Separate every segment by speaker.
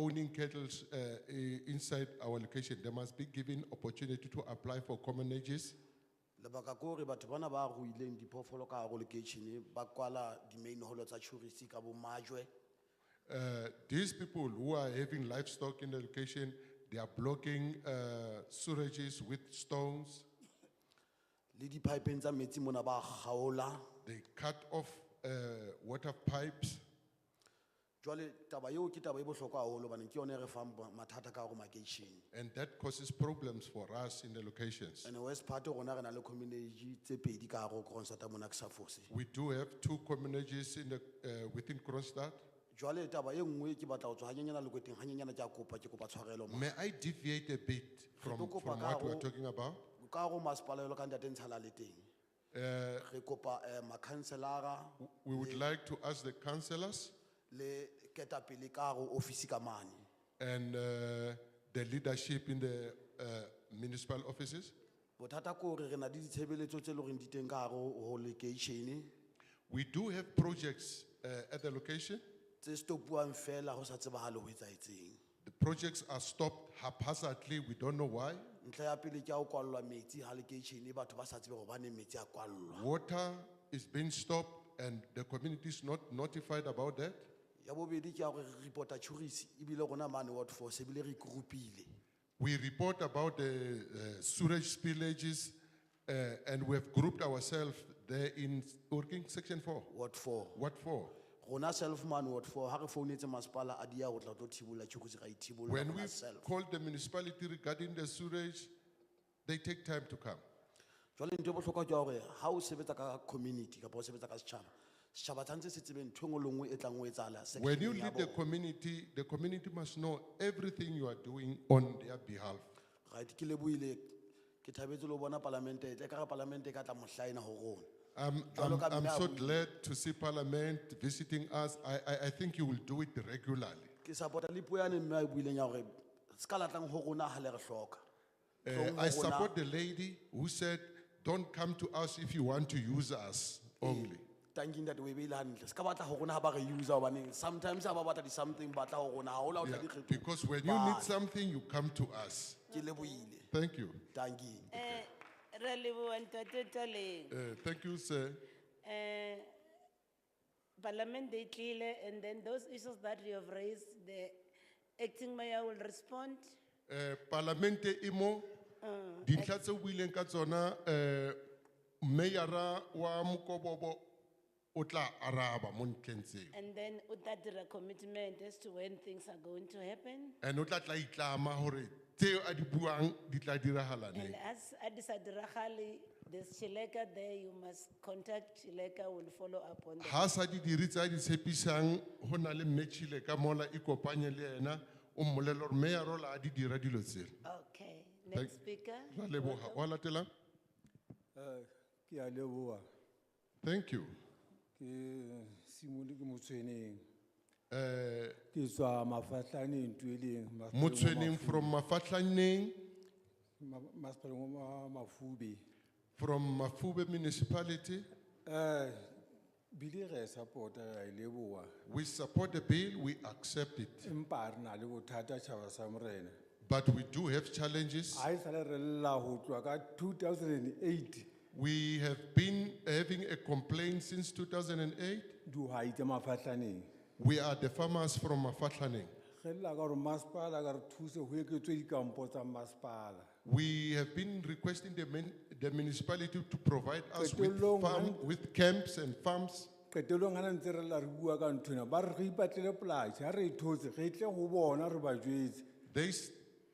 Speaker 1: winning kettles uh, i- inside our location, they must be given opportunity to apply for common ages.
Speaker 2: lebaka ke gore batho bana ba ruileng diphoofolo ka gare lekeišene ba kwala di-main holo tsa tourist ka bomajwe
Speaker 1: Uh, these people who are having livestock in the location, they are blocking uh, sewages with stones.
Speaker 2: le dipipeng tsa metsi mona ba kgaola
Speaker 1: They cut off uh, water pipes.
Speaker 2: jwale taba eo ke taba e bohlokwa haholo baneng ke yone e re fang ba- mathata ka gare makeišene
Speaker 1: And that causes problems for us in the locations.
Speaker 2: and west part rona re na le communage tse pedi ka gare kronsata mona ke sa fose
Speaker 1: We do have two communities in the, uh, within Kronstadt.
Speaker 2: jwale taba e nngwe ke batla go tswa ganyenyana lekweteng ganyenyana ke a kopa ke kopa tshwarelo ma
Speaker 1: May I deviate a bit from,
Speaker 2: Re tlo kopa
Speaker 1: from what
Speaker 2: ka
Speaker 1: we're
Speaker 2: ho-
Speaker 1: talking about?
Speaker 2: ka gare masepala yolo ka ntate ntshala le teng
Speaker 1: Uh,
Speaker 2: re kopa um makhanselara
Speaker 1: we would like to ask the councillors
Speaker 2: le ketapele ka gare office ka mane
Speaker 1: and uh, the leadership in the uh, municipal offices.
Speaker 2: bothata ke gore re na le ditshebeletso tse e le goreng di teng ka gare go lekeišene
Speaker 1: We do have projects uh, at the location.
Speaker 2: tse stopuang fela go sa tsebagale go etsaetseng
Speaker 1: The projects are stopped haphazardly. We don't know why.
Speaker 2: ntlha ya pele ke ya go kwalelwa metsi ga lekeišene batho ba sa tsebe gobane metsi a kwalelwa
Speaker 1: Water is being stopped, and the community is not notified about that.
Speaker 2: ya bobedi ke ya gore re reporta tourist ebile rona mane ward force ebile re ikorupile
Speaker 1: We report about the uh, sewage spillages, uh, and we have grouped ourselves there in working section four.
Speaker 2: ward four
Speaker 1: What for?
Speaker 2: rona self mane ward four ga re founetse masepala a dia go tla tlo thibolola tourist ra ithibolola
Speaker 1: When we
Speaker 2: rona self
Speaker 1: call the municipality regarding the sewage, they take time to come.
Speaker 2: jwale ntho e botlhokwa ke ya gore ga o sebetsa ka community kapa o sebetsa ka setšhaba setšhaba tshwanetse se tsebe ntho e nngwe le nngwe e tlang o e tsala
Speaker 1: When you lead the community, the community must know everything you are doing on their behalf.
Speaker 2: right ke leboile ke thabetse le ho bona palamente e tle ka re palamente e ka tla mohlaena ho rona
Speaker 1: I'm,
Speaker 2: Jwalo
Speaker 1: I'm,
Speaker 2: ka
Speaker 1: I'm
Speaker 2: mme a
Speaker 1: so
Speaker 2: buile.
Speaker 1: glad to see Parliament visiting us. I, I, I think you will do it regularly.
Speaker 2: ke support-a le puo yane mme a e buileng ya gore se ka latlang ho rona ha le re hloka
Speaker 1: Uh,
Speaker 2: Tlong
Speaker 1: I
Speaker 2: ho rona-
Speaker 1: support the lady who said, don't come to us if you want to use us
Speaker 2: Eh,
Speaker 1: only.
Speaker 2: tanking that o e beile hantle se ka batla ho rona ha ba re user hobaneng sometimes ha ba batla di-something ba tla ho rona ha o la o tla
Speaker 1: Yeah,
Speaker 2: dikgetho
Speaker 1: Because when you need something, you come to us.
Speaker 2: ke leboile
Speaker 1: Thank you.
Speaker 2: tanking
Speaker 3: Eh, re leboa ntate Toleng.
Speaker 1: Uh, thank you, sir.
Speaker 3: Eh, Parliament they tlile and then those issues that you have raised, the acting mayor will respond.
Speaker 1: Eh, Parlamente imo, di tlhatse wilen katsona, eh, meyara wa Mukobobo, otla araba mon kenze.
Speaker 3: And then utatira commitment as to when things are going to happen.
Speaker 1: And otla tla itlama hore, te adibuang, di tla
Speaker 3: And
Speaker 1: dirahalane.
Speaker 3: as Adisadrahali, there's Chileka there, you must contact Chileka, will follow up on that.
Speaker 1: Hasa di diritza di sepisang, honale mechile kamola ikopanya le ena, umolelor meyarola adi diradilozir.
Speaker 3: Okay, next speaker.
Speaker 1: Raleboha, walatela,
Speaker 4: Eh, ke a leboa
Speaker 1: thank you.
Speaker 4: ke simole ke motshweneng
Speaker 1: Eh,
Speaker 4: ke tswa mafatlaneng tueleng
Speaker 1: Mutsuening from Mafatlaning,
Speaker 4: masepaleng wa mafube
Speaker 1: from Mafube municipality.
Speaker 4: um bile re a e support-a re a e leboa
Speaker 1: We support the bill, we accept it,
Speaker 4: empa re na le bothata tšhaba sa morena
Speaker 1: but we do have challenges.
Speaker 4: ga e sale re lla go tloa ka 2008
Speaker 1: We have been having a complaint since 2008.
Speaker 4: dihwai tse mafatlaneng
Speaker 1: We are the farmers from Mafatlaning.
Speaker 4: ge lla ka gore masepala ka re thuse go eketswe dikampo tsa masepala
Speaker 1: We have been requesting the min- the municipality to provide us with
Speaker 4: Qetellong
Speaker 1: farm,
Speaker 4: ha-
Speaker 1: with camps and farms.
Speaker 4: qetelong gana ntse re lla re bua ka nthona ba re re ipatlele polase ga re e thotse ge tle go bona re ba jetse
Speaker 1: They s-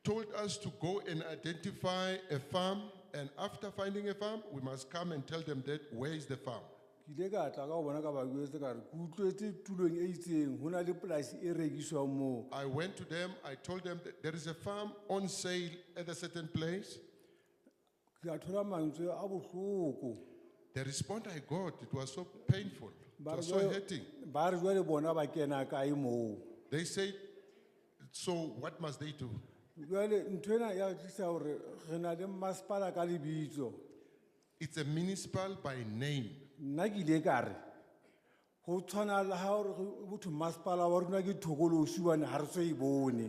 Speaker 1: told us to go and identify a farm, and after finding a farm, we must come and tell them that where is the farm.
Speaker 4: ke ile ka tla ka go bona ka ba jetse ka re ke utlwetse tulong e itseng go na le polase e rekisiwang moo
Speaker 1: I went to them, I told them that there is a farm on sale at a certain place.
Speaker 4: ke a thola mantswe a botlhoko
Speaker 1: The response I got, it was so painful, it
Speaker 4: Ba re
Speaker 1: was so
Speaker 4: jwale-
Speaker 1: hurting.
Speaker 4: ba re jwa le bona ba kena kae moo
Speaker 1: They said, so what must they do?
Speaker 4: jale ntho ena ya re tlisa gore re na le masepala ka lebitso
Speaker 1: It's a municipal by name.
Speaker 4: nna ke ile ka re go tshwana le ga gore botho masepala wa rona ke thokolosi bane ga re so e bone